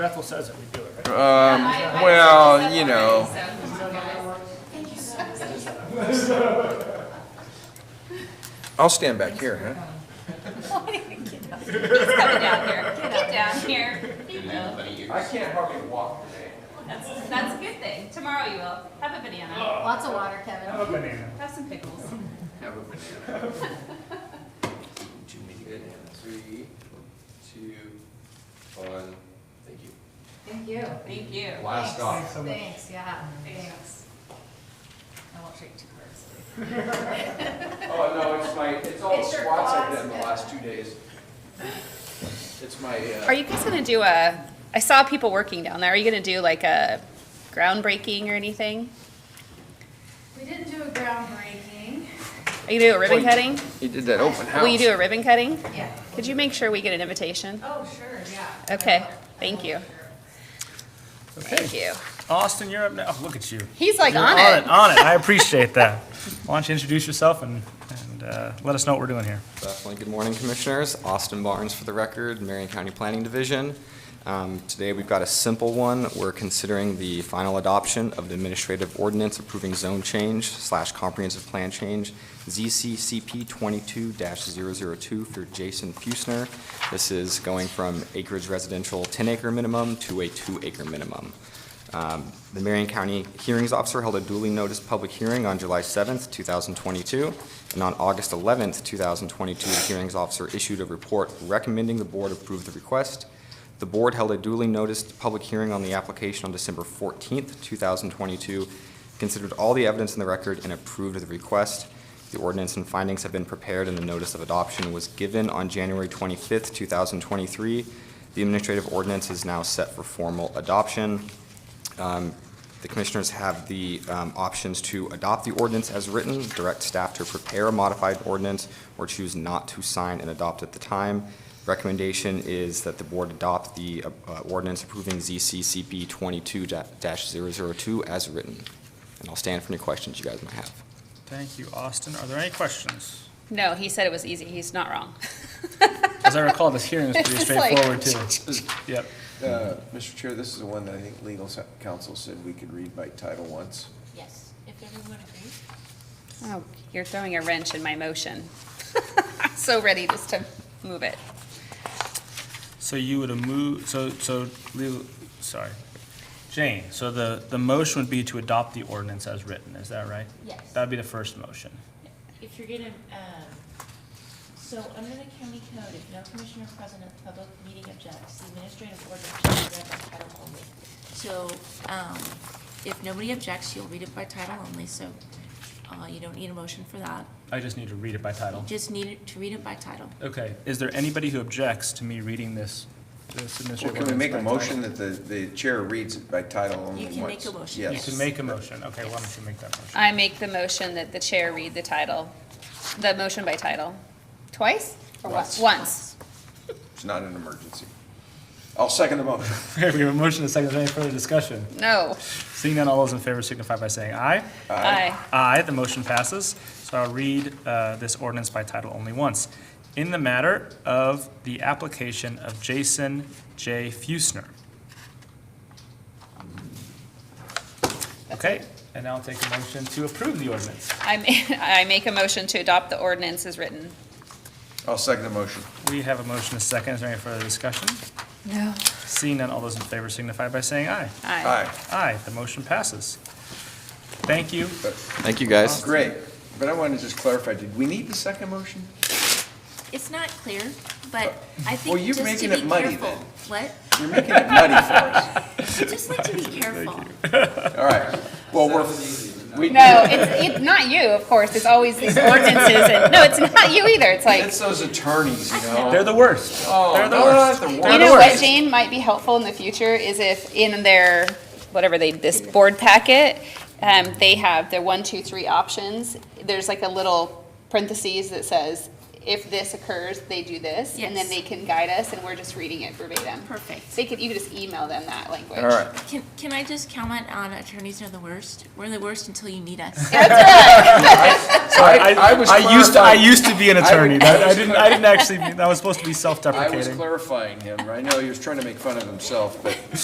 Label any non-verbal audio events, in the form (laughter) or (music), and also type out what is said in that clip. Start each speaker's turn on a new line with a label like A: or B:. A: Bethel says that we do it, right?
B: Um, well, you know, I'll stand back here, huh?
C: He's coming down here. Get down here. He will.
B: I can't hardly walk today.
C: That's, that's a good thing. Tomorrow you will. Have a banana.
D: Lots of water, Kevin.
A: Have a banana.
C: Have some pickles.
B: Have a banana. (laughs) Good. Three, two, one, thank you.
D: Thank you.
C: Thank you.
B: Last off.
D: Thanks, yeah, thanks.
C: Thanks.
D: I won't treat you too personally.
B: Oh, no, it's my, it's all the
D: It's your
B: squats I've
D: quads.
B: done the last two days. It's my,
C: Are
B: uh,
C: you guys gonna do a, I saw people working down there. Are you gonna do like a groundbreaking or anything?
D: We didn't do a groundbreaking.
C: Are you gonna do a ribbon
B: Wait.
C: cutting?
B: you did that open house.
C: Will you do a ribbon cutting?
D: Yeah.
C: Could you make sure we get an invitation?
D: Oh, sure, yeah.
C: Okay, thank you. Thank you.
A: Austin, you're up now. Oh, look at you.
C: He's like
A: You're
C: on
A: on it.
C: it.
A: On it. I appreciate that. Why don't you introduce yourself and, and uh, let us know what we're doing here.
E: Definitely. Good morning, Commissioners. Austin Barnes for the record, Marion County Planning Division. Um, Today, we've got a simple one. We're considering the final adoption of the administrative ordinance approving zone change slash comprehensive plan change, ZCCP 22-002 for Jason Fusner. This is going from acreage residential 10-acre minimum to a two-acre minimum. Um, The Marion County Hearings Officer held a duly noticed public hearing on July 7th, 2022, and on August 11th, 2022, the Hearings Officer issued a report recommending the Board approve the request. The Board held a duly noticed public hearing on the application on December 14th, 2022, considered all the evidence in the record, and approved the request. The ordinance and findings have been prepared, and the notice of adoption was given on January 25th, 2023. The administrative ordinance is now set for formal adoption. Um, The commissioners have the um, options to adopt the ordinance as written, direct staff to prepare a modified ordinance, or choose not to sign and adopt at the time. Recommendation is that the board adopt the uh, uh, ordinance approving ZCCP 22-002 as written. And I'll stand for any questions you guys might have.
A: Thank you, Austin. Are there any questions?
C: No, he said it was easy. He's not wrong.
A: (laughs) As I recall, this
C: (laughs)
A: hearing was pretty
C: It's
A: straightforward
C: like-
A: too. Yep.
F: Uh, Mr. Chair, this is the one that I think legal s- counsel said we could read by title once.
D: Yes, if everyone agrees.
C: Oh, you're throwing a wrench in my motion. (laughs) I'm So ready just to move it.
A: So you would have moved, so, so, legal- sorry. Jane, so the, the motion would be to adopt the ordinance as written, is that right?
G: Yes.
A: That'd be the first motion.
G: If you're gonna, um, so under the county code, if no commissioner present at the public meeting objects, the administrative ordinance shall be read by title only. So, um, if nobody objects, you'll read it by title only, so, uh, you don't need a motion for that.
A: I just need to read it by title.
G: You just need it to read it by title.
A: Okay, is there anybody who objects to me reading this, this
F: Well,
A: administrative
F: can we
A: ordinance
F: make a
A: by title?
F: motion that the, the chair reads it by title only
G: You
F: once?
G: can make a motion.
A: You
F: Yes.
A: can make a motion, okay, why don't you make that motion?
C: I make the motion that the chair read the title, the motion by title. Twice? or Once. Once.
F: It's not an emergency. I'll second the motion.
A: Okay, we have a motion, and a second, is there any further discussion?
C: No.
A: Seeing none, all those in favor signify by saying aye.
C: Aye.
A: Aye, the motion passes. So I'll read uh, this ordinance by title only once. In the matter of the application of Jason J. Fusner. Okay, and now I'll take a motion to approve the ordinance.
C: I ma- (laughs) I make a motion to adopt the ordinance as written.
F: I'll second the motion.
A: We have a motion, and a second. Is there any further discussion?
C: No.
A: Seeing none, all those in favor signify by saying aye.
C: Aye.
F: Aye,
A: Aye, the motion passes. Thank you.
E: Thank you, guys.
F: great. But I want to just clarify, did we need the second motion?
G: It's not clear, but I
F: Well,
G: think
F: you're
G: just
F: making
G: to be careful.
F: it muddy then.
G: What?
F: You're making it muddy for us.
G: Just
F: (laughs)
G: like to be careful.
F: All right. Well, we're, we,
C: No, it's, it's not you, of course. It's always these ordinances and, no, it's not you either. It's like,
F: it's those attorneys, you know?
A: They're the worst.
F: Oh,
A: They're the
F: no,
A: worst.
F: not the
C: you
F: worst.
C: know what, Jane, might be helpful in the future is if in their, whatever they, this board packet, um, they have their one, two, three options. There's like a little parentheses that says, if this occurs, they do this, and then
H: Yes.
C: they can guide us, and we're just reading it verbatim.
H: Perfect.
C: They could, you could just email them that language.
B: All right.
G: Can, can I just comment on attorneys are the worst? We're the worst until you need us.
A: Sorry, I,
B: I was
A: I used, to- I
B: clarifying.
A: used to be an
B: was-
A: attorney. That-
B: I
A: I
B: was
A: didn't, I didn't actually, mean- that was supposed to be
B: I was
A: self-deprecating.
B: clarifying him. I know he was trying to make fun of himself, but